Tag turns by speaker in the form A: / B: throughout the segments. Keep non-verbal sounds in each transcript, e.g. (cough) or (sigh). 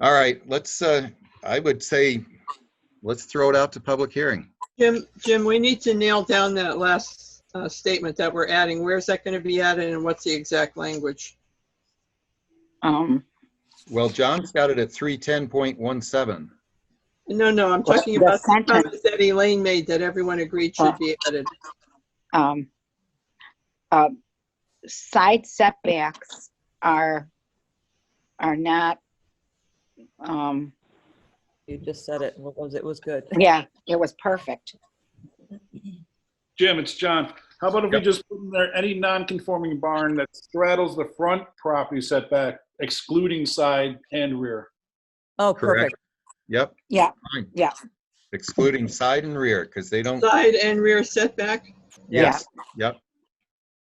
A: All right, let's, uh, I would say, let's throw it out to public hearing.
B: Jim, Jim, we need to nail down that last uh, statement that we're adding. Where's that going to be added and what's the exact language?
C: Um,
A: Well, John's got it at 310.17.
D: Oh,
B: No, no, I'm talking
C: The
B: about the
C: sentence.
B: comments that Elaine made that everyone agreed should be added.
C: um, uh, side setbacks are, are not, um,
D: You just said it. What was it? It was good.
C: yeah, it was perfect.
E: Jim, it's John. How about if we
A: Yep.
E: just put in there any non-conforming barn that straddles the front property setback excluding side and rear?
D: Oh,
A: Correct.
D: perfect.
A: Yep,
C: Yeah,
A: excluding side and rear, because they don't,
B: Side and rear setback,
A: yes, yep.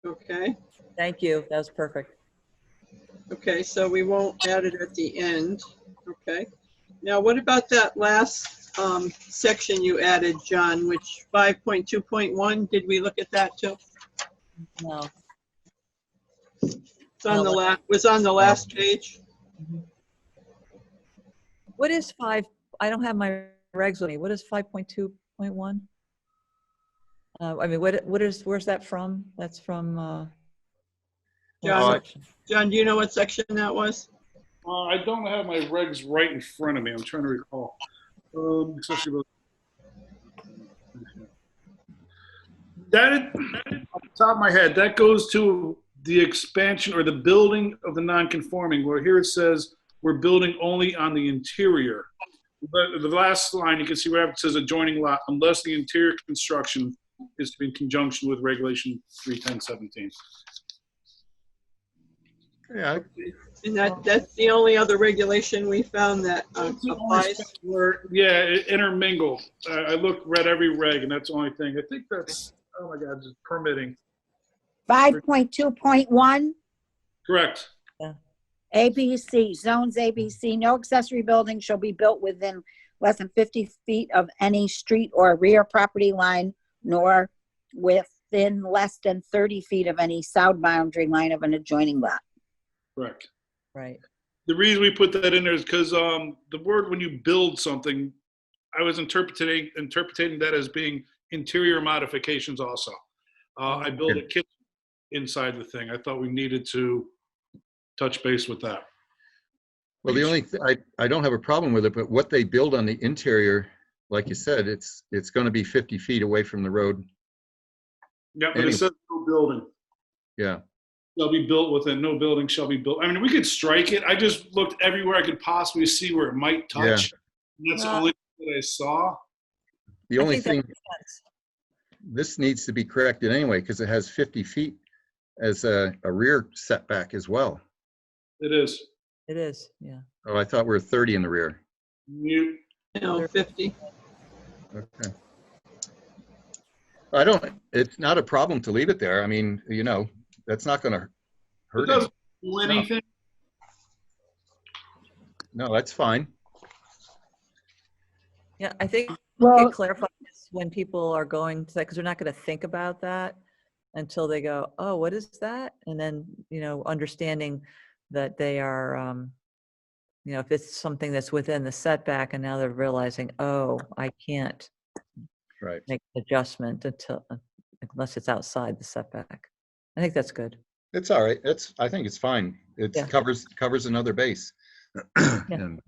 B: okay?
D: Thank you. That was perfect.
B: Okay, so we won't add it at the end, okay? Now, what about that last um, section you added, John, which 5.2.1, did we look at that too?
D: No.
B: It's on the last, was on the last page?
D: What is five? I don't have my regs with me. What is 5.2.1? Uh, I mean, what, what is, where's that from? That's from, uh, what
B: John.
D: section?
B: John, do you know what section that was?
E: Uh, I don't have my regs right in front of me. I'm trying to recall. Um, especially with- That, is- off the top of my head, that goes to the expansion or the building of the non-conforming, where here it says, we're building only on the interior. But the last line, you can see where it says adjoining lot, unless the interior construction is to be in conjunction with regulation 31017.
A: Yeah,
B: And that, that's the only other regulation we found that uh,
E: That's the only
B: applies.
E: spot where- Yeah, it intermingle. I, I looked, read every reg, and that's the only thing. I think that's, oh my God, just permitting.
F: Five point two point one,
E: Correct.
F: ABC, zones ABC, no accessory building shall be built within less than fifty feet of any street or rear property line, nor within less than thirty feet of any south boundary line of an adjoining lot.
E: Correct.
D: Right.
E: The reason we put that in there is because um, the word when you build something, I was interpreting interpreting that as being interior modifications also. Uh, I built a kitchen inside the thing. I thought we needed to touch base with that.
A: well, the only, th- I, I don't have a problem with it, but what they build on the interior, like you said, it's, it's going to be 50 feet away from the road.
E: Yeah, but
A: Anyway.
E: it says no building.
A: Yeah,
E: shall be built within, no building shall be built. I mean, we could strike it. I just looked everywhere I could possibly see where it might touch. And That's the
D: Yeah.
E: only thing that I saw.
A: the
D: I
A: only
D: think that
A: thing,
D: makes sense.
A: this needs to be corrected anyway, because it has 50 feet as a, a rear setback as well.
E: It is.
D: It is, yeah.
A: Oh, I thought we were 30 in the rear.
E: Mute.
B: You know, 50.
A: Okay. I don't, it's not a problem to leave it there. I mean, you know, that's not gonna
E: It
A: hurt it.
E: doesn't do anything.
A: No, that's fine.
D: Yeah, I think
F: Well,
D: it clarifies when people are going to that, because they're not going to think about that until they go, oh, what is that? And then, you know, understanding that they are, um, you know, if it's something that's within the setback and now they're realizing, oh, I can't
A: Right.
D: make an adjustment until, uh, unless it's outside the setback. I think that's good.
A: It's all right. It's, I think it's fine. It
D: Yeah.
A: covers, covers another base. (clears throat) And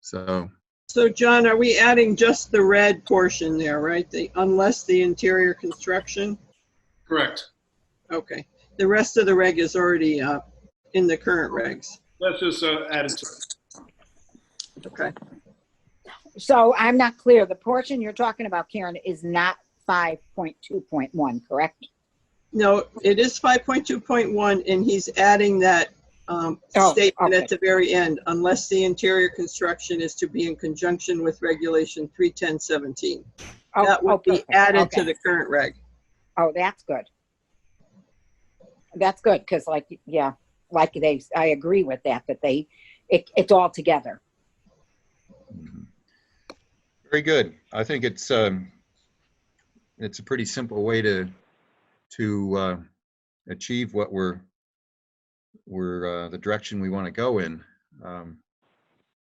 A: So,
B: So John, are we adding just the red portion there, right? The, unless the interior construction?
E: Correct.
B: Okay, the rest of the reg is already uh, in the current regs.
E: That's just uh, added to it.
B: Okay.
F: so I'm not clear. The portion you're talking about, Karen, is not five point two point one, correct?
B: No, it is 5.2.1, and he's adding that um,
F: Oh,
B: statement
F: okay.
B: at the very end, unless the interior construction is to be in conjunction with regulation 31017.
F: Oh,
B: That
F: oh,
B: would be
F: perfect.
B: added
F: Okay.
B: to the current reg.
F: Oh, that's good. That's good, because like, yeah, like they, I agree with that, that they, it, it's all together.
A: very good. I think it's, um, it's a pretty simple way to, to, uh, achieve what we're, we're, uh, the direction we want to go in. Um,